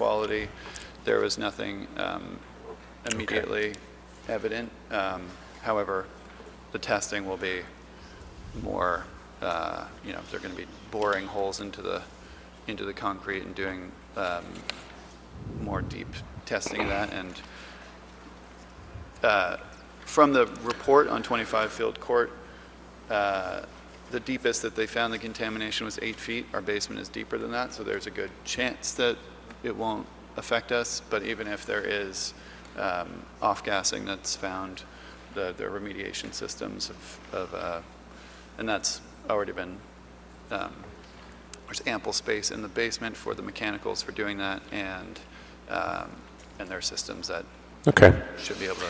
quality. There was nothing um, immediately evident. Um, However, the testing will be more, uh, you know, they're going to be boring holes into the, into the concrete and doing um, more deep testing of that. And uh, from the report on 25 Field Court, uh, the deepest that they found the contamination was eight feet. Our basement is deeper than that, so there's a good chance that it won't affect us. But even if there is um, off-gassing that's found, the, the remediation systems of, of, uh, and that's already been, um, there's ample space in the basement for the mechanicals for doing that and, um, and their systems that Okay. should be able to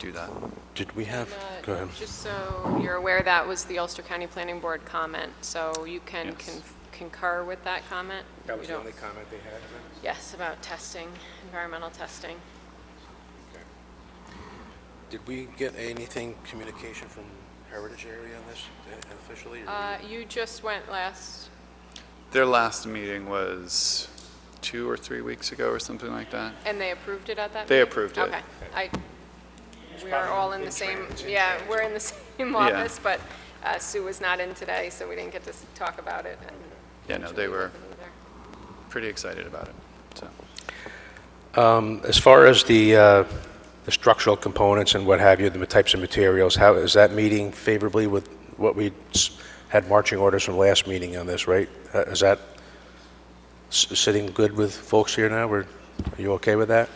do that. Did we have, Uh, go ahead. Just so you're aware, that was the Ulster County Planning Board comment, so you can Yes. con- concur with that comment? That You was the don't- only comment they had. then? Yes, about testing, environmental testing. Mm-hmm. Did we get anything, communication from Heritage Area on this officially? or- Uh, You just went last, Their last meeting was two or three weeks ago or something like that. and they approved it at that? They meeting? approved it. Okay. I, we are probably all in in the same, transit, in yeah, we're in the same Yeah. office, but uh, Sue was not in today, so we didn't get to s- talk about it. and Yeah, no, they were either. pretty excited about it, so. Um, As far as the, uh, the structural components and what have you, the types of materials, how, is that meeting favorably with what we s- had marching orders from last meeting on this, right? Uh, Is that s- sitting good with folks here now? We're- Are you okay with that?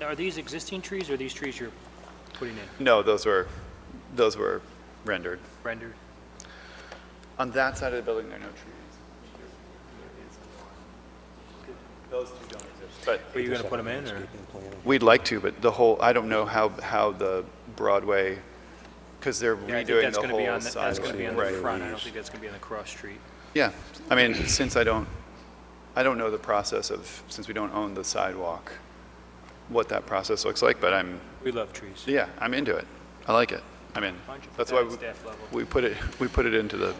Now, are these existing trees or are these trees you're putting in, No, those were, those were rendered. rendered? On that side of the building, there are no trees. Those two don't exist. But Were you going to put them in or? we'd like to, but the whole, I don't know how, how the Broadway, because they're Yeah, I think redoing that's the going to be whole on, the- that's going to be on the sidewalk. Right. front. I don't think that's going to be on the cross street. Yeah, I mean, since I don't, I don't know the process of, since we don't own the sidewalk, what that process looks like, but I'm, We love trees. yeah, I'm into it. I like it. I mean, Why don't you put that's that why at we- staff level? we put it, we put it into the,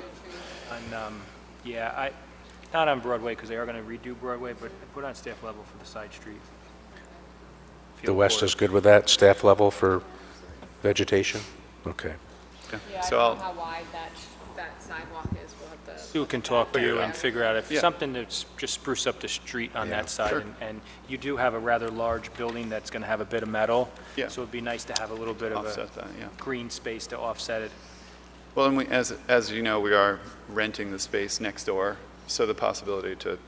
On, um, yeah, I, not on Broadway because they are going to redo Broadway, but I put on staff level for the side street. The West Field is good with that, staff level for vegetation? Okay. Yeah, I so don't know I'll, how wide that, sh- that sidewalk is, we'll have to. court. Sue can talk to you Yeah. and figure out if Yeah. something that's just spruce up the street on that side. sure. and- And you do have a rather large building that's going to have a bit of metal. Yeah. So it'd be nice to have a little bit of a offset that, yeah. green space to offset it. Well, and we, as, as you know, we are renting the space next door, so the possibility to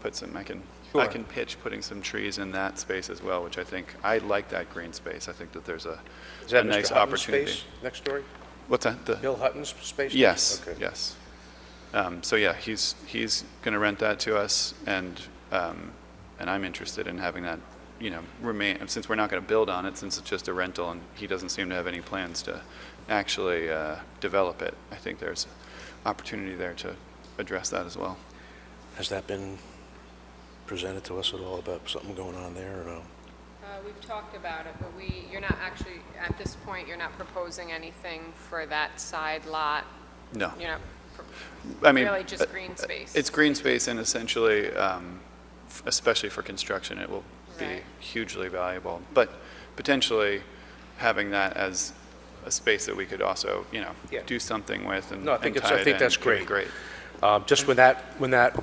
put some, I can, I Sure. can pitch putting some trees in that space as well, which I think, I like that green space. I think that there's a, Is a that nice Mr. Hutton's opportunity. space next door? What's that? The- Bill Hutton's space? Yes, Okay. yes. Um, So yeah, he's, he's going to rent that to us, and, um, and I'm interested in having that, you know, remain, and since we're not going to build on it, since it's just a rental, and he doesn't seem to have any plans to actually uh, develop it, I think there's opportunity there to address that as well. Has that been presented to us at all about something going on there or no? Uh, We've talked about it, but we, you're not actually, at this point, you're not proposing anything for that side lot. No. You're not, I mean, really uh, just green space. It's green space and essentially, um, f- especially for construction, it will be Right. hugely valuable. But potentially having that as a space that we could also, you know, Yeah. do something with and No, I and think it's- tie I it think in that's could be great. Um, Just when that, when that,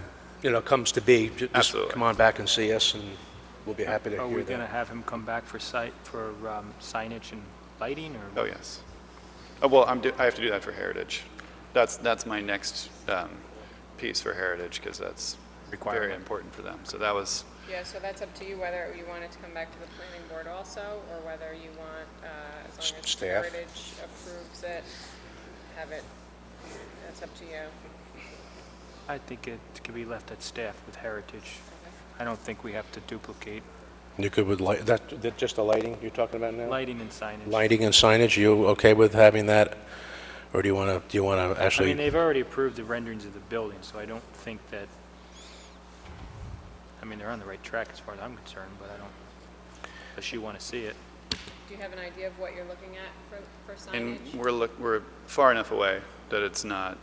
you know, comes to be, ju- just Absolutely. come on back and see us, and we'll be happy to hear Are we going to that. have him come back for site, for um, signage and lighting, or? Oh, yes. Oh, well, I'm, do- I have to do that for Heritage. That's, that's my next um, piece for Heritage because that's very Requirement. important for them. So that was, yeah, so that's up to you whether you want it to come back to the planning board also, or whether you want, uh, as long as Staff. Heritage approves it, have it, that's up to you. I think it could be left at staff with Heritage. I don't think we have to duplicate You good with light, that, that- just the lighting you're talking about now? lighting and signage. Lighting and signage, you okay with having that? Or do you want to, do you want to I mean, actually, they've already approved the renderings of the building, so I don't think that, I mean, they're on the right track as far as I'm concerned, but I don't, does she want to see it? Do you have an idea of what you're looking at for, for signage? And we're, look- we're far enough away that it's not